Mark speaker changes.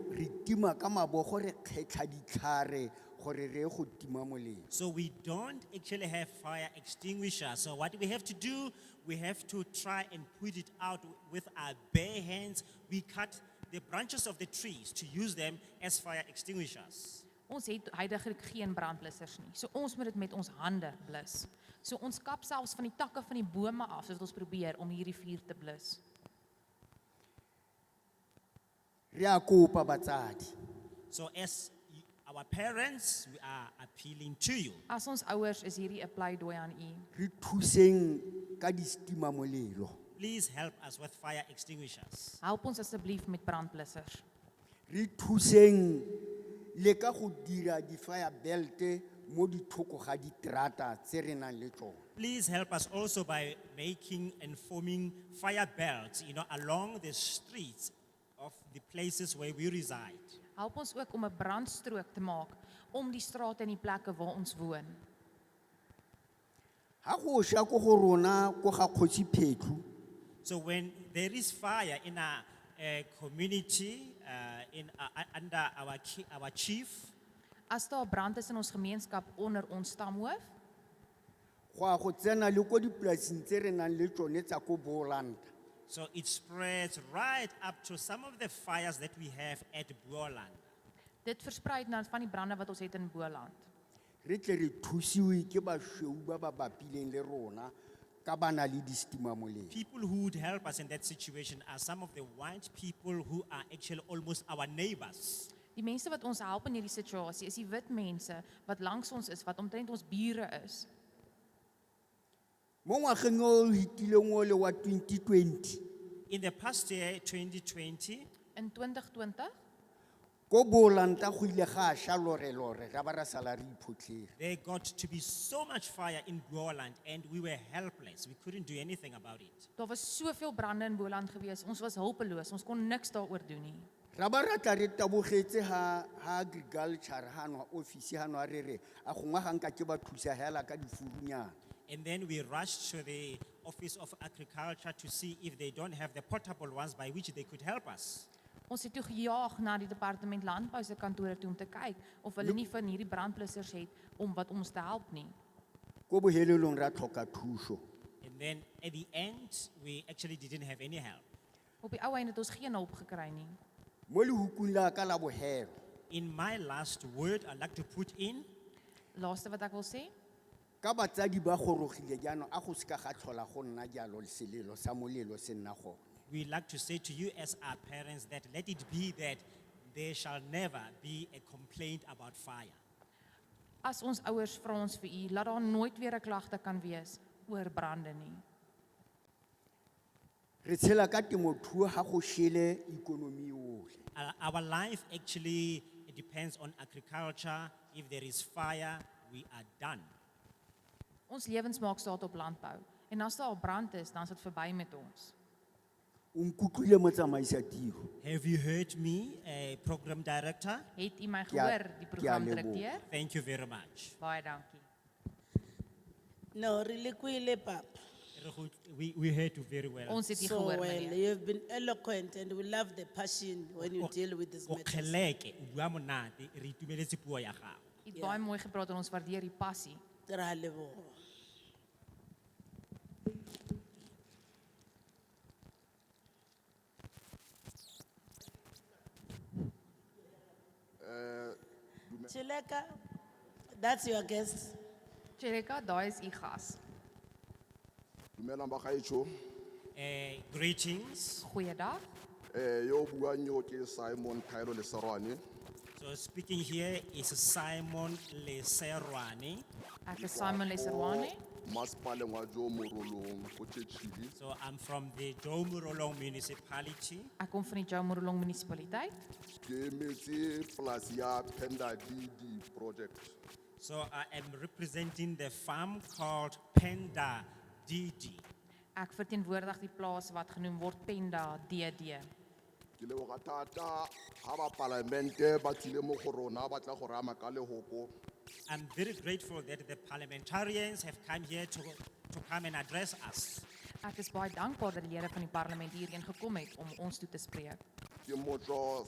Speaker 1: re tima ka mabogo re kgetlha ditlhare gore re ye go tima molelo
Speaker 2: So we don't actually have fire extinguisher. So what we have to do, we have to try and put it out with our bare hands. We cut the branches of the trees to use them as fire extinguishers.
Speaker 3: Ons het heidaglik geen brandblussers nie. So ons moet dit met ons hande blus. So ons kap selfs van die takke van die bome af sodat ons probeer om hierdie vuur te blus.
Speaker 1: re a kopa batsadi
Speaker 2: So as y- our parents, we are appealing to you.
Speaker 3: As ons ouers is hierdie 'n pleidooi aan u.
Speaker 1: re thuseng ka distimamolelo
Speaker 2: Please help us with fire extinguishers.
Speaker 3: Help ons asseblief met brandblussers.
Speaker 1: re thuseng le ka go dira di-fire belte mo dithoko ga diterata tse re nang le tsone
Speaker 2: Please help us also by making and forming fire belts, you know, along the streets of the places where we reside.
Speaker 3: Help ons ook om 'n brandstrook te maak om die strate en die plekke waar ons woon.
Speaker 1: ga go sha ko go rona ko ga kgosi phetlu
Speaker 2: So when there is fire in our uh, community, uh, in uh, under our ki- our chief,
Speaker 3: As daar 'n brand is in ons gemeenskap onder ons stamhoof,
Speaker 1: go a go tsena le ko dipolaseng tse re nang le tsone tsa ko boolanta
Speaker 2: so it spreads right up to some of the fires that we have at Buolan.
Speaker 3: dit versprei dan van die brande wat ons het in Boland.
Speaker 1: re tle re thusiwe ke basweu ba ba bapileng le rona ka ba na le distimamolelo
Speaker 2: People who would help us in that situation are some of the white people who are actually almost our neighbors.
Speaker 3: Die mense wat ons help in hierdie situasie is die wit mense wat langs ons is, wat omtrent ons bure is.
Speaker 1: mo ngwageng o hitileng o le wa 2020
Speaker 2: In the past year, 2020,
Speaker 3: In 2020
Speaker 1: ko boolanta go ile ga a sha lorelore ra ba ra sala re iphotlhere
Speaker 2: there got to be so much fire in Buoland and we were helpless. We couldn't do anything about it.
Speaker 3: Daar was soveel brande in Boland gewees. Ons was hulpeloos. Ons kon niks daaroor doen nie.
Speaker 1: ra ba ra tla re tabogetse ha ha agriculture ha nwa office ha nwa re re a go ngwa ga nka ke ba thusa hela ka difurunyana
Speaker 2: And then we rushed to the Office of Agriculture to see if they don't have the portable ones by which they could help us.
Speaker 3: Ons het toe gejaag na die departement landbou se kantore toe om te kyk of hulle nie van hierdie brandblussers het om wat ons te help nie.
Speaker 1: ko bohelelong ra tlhoka thuso
Speaker 2: And then at the end, we actually didn't have any help.
Speaker 3: Op die ou einde het ons geen hulp gekry nie.
Speaker 1: mo lehukung la ka la bohelo
Speaker 2: In my last word, I'd like to put in
Speaker 3: Laaste wat ek wil sê,
Speaker 1: ka batsadi ba gorogile jaanong a go seka ga tlhola go nna jalo selelo sa molelo se nna gone
Speaker 2: we like to say to you as our parents that let it be that there shall never be a complaint about fire.
Speaker 3: as ons ouers vra ons vir u, laat daar nooit weer 'n klagte kan wees oor brande nie.
Speaker 1: re tshela ka temothuo ga go shele ikonomi yotlhe
Speaker 2: Our, our life actually depends on agriculture. If there is fire, we are done.
Speaker 3: Ons lewens maak staat op landbou en as daar 'n brand is, dan is dit verby met ons.
Speaker 1: o nkutlwile motsamaisa tiro
Speaker 2: Have you heard me, uh, program director?
Speaker 3: Het u my
Speaker 1: Ke a-
Speaker 3: gehoor, die
Speaker 1: ke a
Speaker 3: programdirekteur?
Speaker 2: Thank you very much.
Speaker 3: Baie dankie.
Speaker 4: No, relikuile papa.
Speaker 2: We, we heard you very well.
Speaker 3: Ons het u
Speaker 4: So eh,
Speaker 3: gehoor,
Speaker 4: well,
Speaker 3: meneer.
Speaker 4: you've been eloquent and we love the passion when you deal with these
Speaker 2: O
Speaker 4: matters.
Speaker 2: kgeleke, o bua monate, re itumeletse puo ya gago.
Speaker 3: U het baie mooi gepraat en ons waardeer u passie.
Speaker 4: Re a leboha. Chileka, that's your guest.
Speaker 3: Chereka, daai is u gas.
Speaker 5: Dumelang bagaetsho.
Speaker 2: Eh, greetings.
Speaker 3: Goeiedag.
Speaker 5: Eh yo buang yo ke Simon Kairo Leserwane.
Speaker 2: So speaking here is Simon Leserwane.
Speaker 3: Ek is Simon Leserwane.
Speaker 5: Masipaleng wa jo morolong ko Chechili.
Speaker 2: So I'm from the Domurolong municipality.
Speaker 3: Ek kom van die Jomorolong munisipaliteit.
Speaker 5: Ke metse plus ya Penda DD project.
Speaker 2: So I am representing the farm called Penda Didi.
Speaker 3: Ek verteenwoordig die plaas wat genoem word Penda DD.
Speaker 5: Ke le go tata ha ba parlamente ba tsile mo go rona ba tla go rama ka lehoko.
Speaker 2: I'm very grateful that the parliamentarians have come here to, to come and address us.
Speaker 3: Ek is baie dankbaar dat die lede van die parlement hierheen gekom het om ons toe te spreek.
Speaker 5: Ke motlo